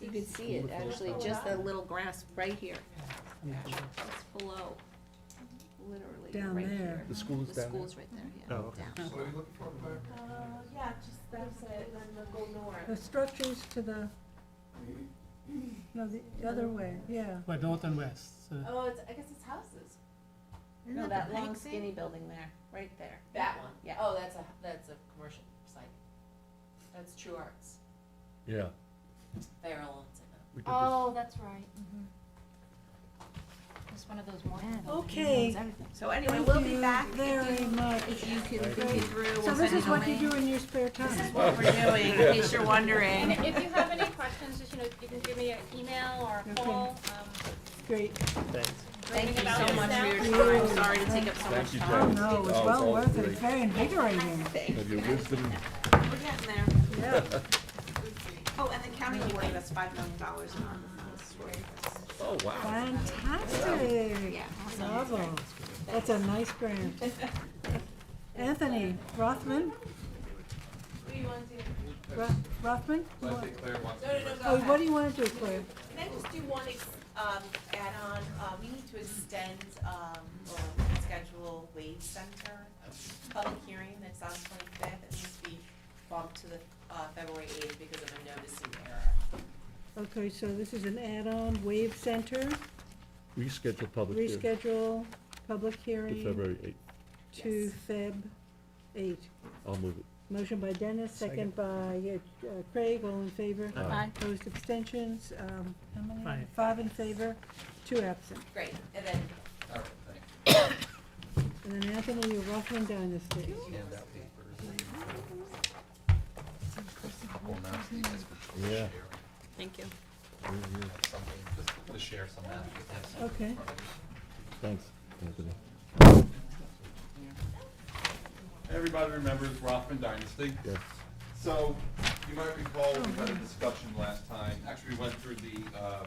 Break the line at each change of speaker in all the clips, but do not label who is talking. You could see it, actually, just that little grass right here. It's below, literally,
Down
right
there.
here.
The school is
The
down there?
school's right there, yeah.
Oh, okay.
down.
What are you looking for, Claire?
Uh, yeah, just that's it, and then go north.
The structures to the, no, the other way, yeah.
But north and west, so
Oh, it's, I guess it's houses.
No, that long skinny building there, right there.
That one?
Yeah.
Oh, that's a, that's a commercial site. That's True Arts.
Yeah.
They're all on it now.
we did this.
Oh, that's right. It's one of those more.
Okay.
So anyway, we'll be
Thank you
back if
Very
you,
much.
if you can
Right.
think it through.
So
we'll
this
send
is
it
what
away.
you do in your spare
This is
time.
what we're doing, in case you're
And
wondering.
if you have any questions, just, you know, you can give me an email or a
Okay.
call. um,
Great.
Thank you
about
so
this
much
now.
for your time, sorry to take up so much
you,
time.
Oh, no, it was
Oh, it's
well
all
worth it.
great.
It's very invigorating.
Have your wisdom.
We're getting there.
Yeah.
Oh, and the county will give us five million dollars in our,
Oh, wow.
Fantastic.
yeah.
Bravo. That's a nice grant. Anthony Rothman?
What do you want to do?
Ro- Rothman?
Well, I think Claire wants to.
No, no, no, go
Oh,
ahead.
what do you want to do, Claire?
Can I just do one, ex- um, add-on, uh, we need to extend, um, or schedule Wave Center, public hearing that's on twenty-fifth, it needs to be bumped to the, uh, February eighth because of a noticing error.
Okay, so this is an add-on, Wave Center,
Reschedule public hearing
reschedule public
to
hearing.
February 8th.
to Feb. 8.
I'll move it.
Motion by Dennis, second by uh, Craig, all in favor.
Aye. Aye.
Opposed abstentions, um, how many?
Five.
in favor, two absent.
Great, and then
All right, thank you.
And then Anthony, you're roughing dynasty.
Hand out papers. Well, now, Steve, that's for
Yeah.
sharing.
Thank you.
Have Something, just to share some out, just have some.
Okay.
Thanks, Anthony.
Everybody remembers Rothman Dynasty.
Yes.
So, you might recall, we had a discussion last time, actually, we went through the, uh,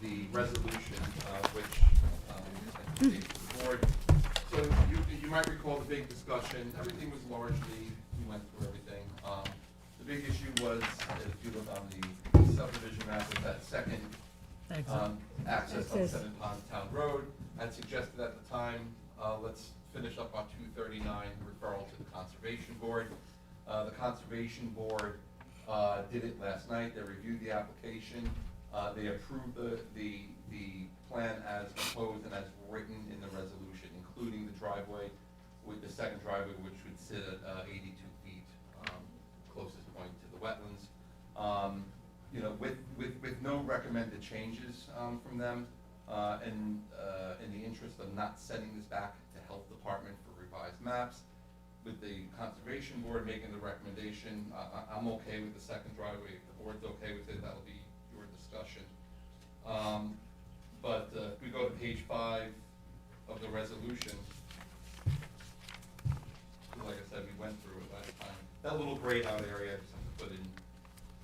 the resolution, uh, which, um, I think the board, so you, you might recall the big discussion, everything was largely, we went through everything. Um, The big issue was, if you look on the subdivision map, was that second
exit.
um, access on
Access.
Seven Pond Town Road. I'd suggested at the time, uh, let's finish up on two thirty-nine referral to the Conservation Board. Uh, the Conservation Board, uh, did it last night, they reviewed the application, uh, they approved the, the, the plan as proposed and as written in the resolution, including the driveway, with the second driveway, which would sit at, uh, eighty-two feet, um, closest point to the wetlands. Um, you know, with, with, with no recommended changes, um, from them, uh, and, uh, in the interest of not sending this back to Health Department for revised maps, with the Conservation Board making the recommendation, I, I, I'm okay with the second driveway, if the board's okay with it, that'll be your discussion. Um, but, uh, if we go to page five of the resolution, like I said, we went through it last time, that little grayed out area, I just have to put in,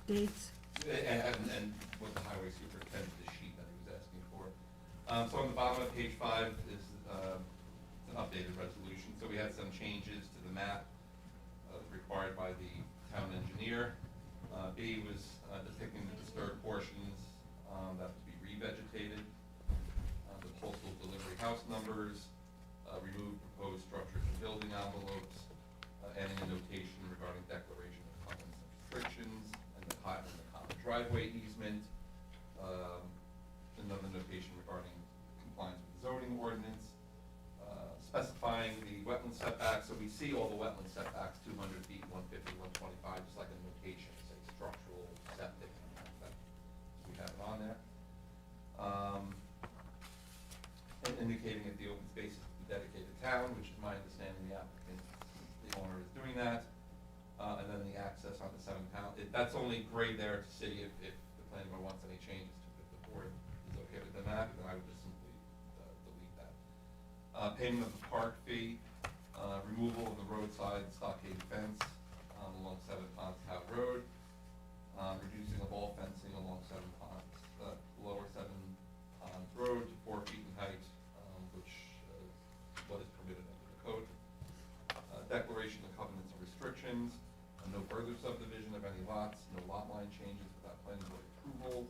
Dates,
and, and- and what the highway superintendent, the sheet that he was asking for. Um, so on the bottom of page five is, uh, an updated resolution, so we had some changes to the map, uh, required by the town engineer. Uh, B was uh, depicting the disturbed portions, um, that would be revegetated, uh, the postal delivery house numbers, uh, remove proposed structures and building envelopes, uh, adding a notation regarding declaration of common restrictions, and the co- and the common driveway easement, um, another notation regarding compliance with zoning ordinance, uh, specifying the wetland setbacks, so we see all the wetland setbacks, two hundred feet, 150, 125, just like a notation, say structural septic, and that, that, we have it on there. Um, and indicating that the open space is dedicated to town, which is my understanding, the applicant, the owner is doing that. Uh, and then the access on the seven pound, it, that's only gray there to see if, if the planning board wants any changes to, if the board is okay with the map, then I would just simply, uh, delete that. Uh, payment of the park fee, uh, removal of the roadside stockade fence, um, along Seven Ponds Howe Road, um, reducing um, Uh,